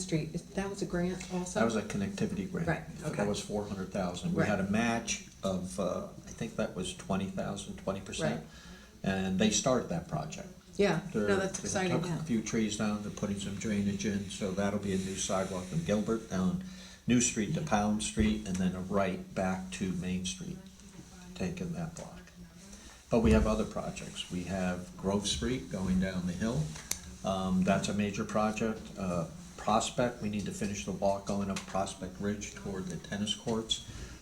Street, is- that was a grant also? That was a connectivity grant. Right, okay. That was four hundred thousand. We Right. had a match of, uh, I think that was twenty thousand, twenty percent. Right. And they started that project. Yeah, They're- no, that's they exciting, took yeah. A few trees down, they're putting some drainage in, so that'll be a new sidewalk from Gilbert down New Street to Pound Street, and then a right back to Main Street, taking that block. But we have other projects. We have Grove Street going down the hill. Um, that's a major project. Uh, Prospect, we need to finish the walk going up Prospect Ridge toward the tennis courts.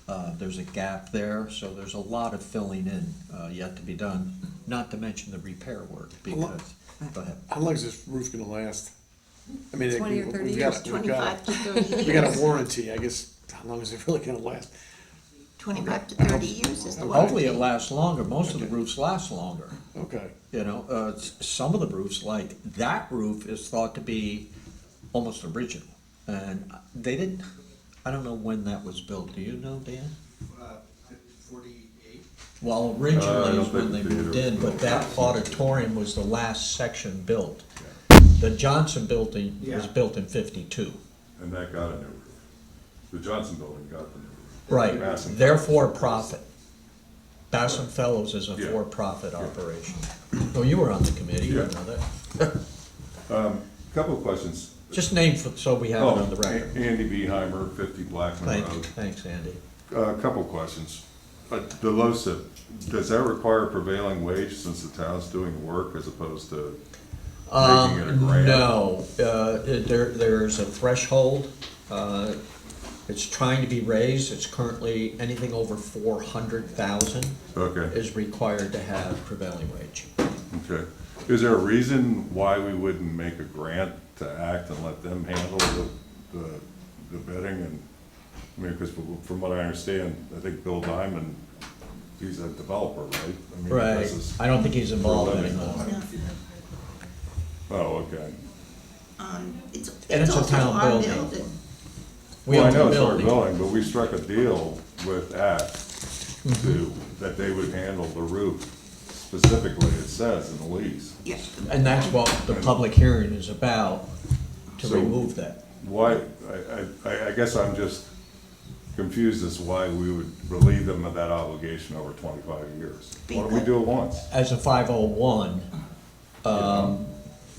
Uh, there's a gap there, so there's a lot of filling in, uh, yet to be done, not to mention the repair work because, go ahead. How long is this roof gonna last? I mean, it- Twenty or we- thirty we've got years, a- we've got a- Twenty-five to thirty We got a years. warranty, I guess, how long is it really gonna last? Twenty-five to thirty years is the Hopefully it warranty. lasts longer. Most of the Okay. roofs last longer. Okay, You know, uh, s- some of the roofs, like that roof is thought to be almost original. And they didn't, I don't know when that was built. Do you know, Dan? forty-eight. Well, Uh, I originally don't is when they think the moved in, but theater- that auditorium was the last section built. The Johnson building was Yeah. built in fifty-two. And that got a new roof. The Johnson Building got the new roof. Right, Bassam they're Fellows. for-profit. Bassam Fellows is a Yeah. for-profit operation. Well, you were on the committee, you Yeah. know that. Couple of questions. Just name, for- so we have it Oh, on the record. A- Andy Beheimer, fifty Blackman Thank you, Road. thanks, Andy. A couple of questions. Uh, The LoSiP, does that require prevailing wage since the town's doing work as opposed to making it a Um, grant? no, uh, it- there, there's a threshold, uh, it's trying to be raised, it's currently, anything over four hundred thousand Okay, is required to have prevailing wage. okay. Is there a reason why we wouldn't make a grant to act and let them handle the, the- the bidding and, I mean, because from what I understand, I think Bill Diamond, he's a developer, right? I mean, he Right, does this- I don't think he's involved For a living. anymore. Oh, okay. Um, It's, And it's it's a also town our building. building. We Well, I own the know it's our building. building, but we struck a deal with Act to, Mm-hmm. that they would handle the roof specifically, it says in the lease. Yes. And that's what the public hearing is about, to So- remove that. Why, I, I, I guess I'm just confused as why we would relieve them of that obligation over twenty-five years. Why don't we do it once? As a five oh one, um,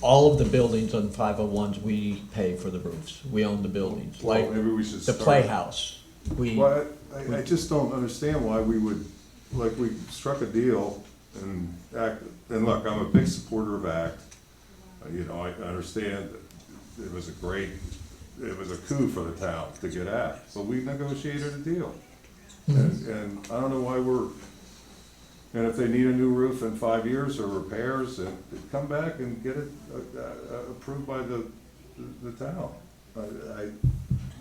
all of the buildings on five oh ones, we pay for the roofs. We own the buildings, Well, like maybe we should the start- playhouse. We, Well, I, I just don't understand why we would, like, we struck a deal and act, and look, I'm a big supporter of ACT. Uh, You know, I I understand that it was a great, it was a coup for the town to get ACT, but we negotiated a deal. And, and I don't know why we're, and if they need a new roof in five years or repairs, uh, come back and get it uh, uh, approved by the, the town. I, I,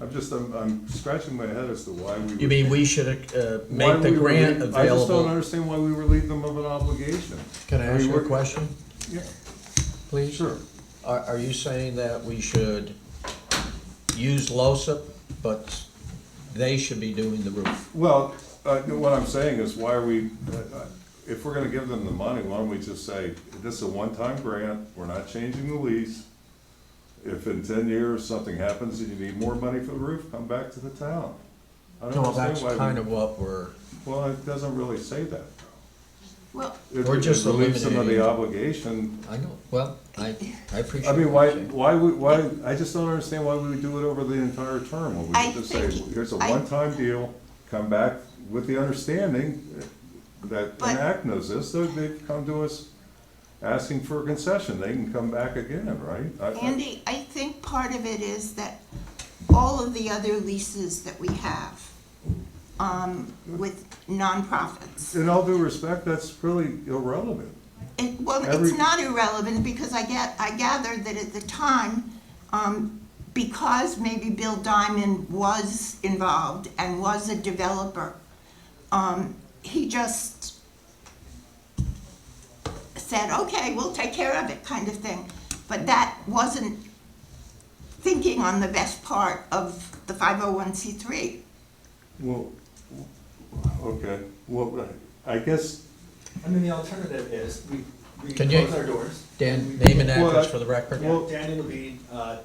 I'm just, I'm, I'm scratching my head as to why we. you would- mean we should, uh, why make the we were grant leave- I just don't available? understand why we relieve them of an obligation. Can I mean, ask you a we're- question, Yeah, please? sure. Are, are you saying that we should use LOSIP, but they should be doing the roof? Well, uh, no, what I'm saying is, why are we, uh, uh, if we're gonna give them the money, why don't we just say, this is a one-time grant, we're not changing the lease. If in ten years something happens and you need more money for the roof, come back to the town. I don't No, that's understand why we- kind of what we're, Well, it doesn't really say that. Well, It- We're it just relieves them of the eliminating- obligation I know, well, I, I appreciate. I mean, what why, you're saying. why, would- why, I just don't understand why we would do it over the entire term, when we I could just say, think- here's a I- one-time deal, come back with the understanding that But- Enact knows this, so they come to us asking for a concession, they can come back again, right? I- I- Andy, I think part of it is that all of the other leases that we have, um, with nonprofits. In all due respect, that's really irrelevant. It, well, Every- it's not irrelevant because I get, I gathered that at the time, um, because maybe Bill Diamond was involved and was a developer, um, he just said, okay, we'll take care of it, kind of thing. But that wasn't thinking on the best part of the 501c3. Well, okay, well, I guess, I mean, the alternative is we, we Can you- close our doors. Dan, We- name and Well, address I- for the record. Yeah, Daniel Levine, uh,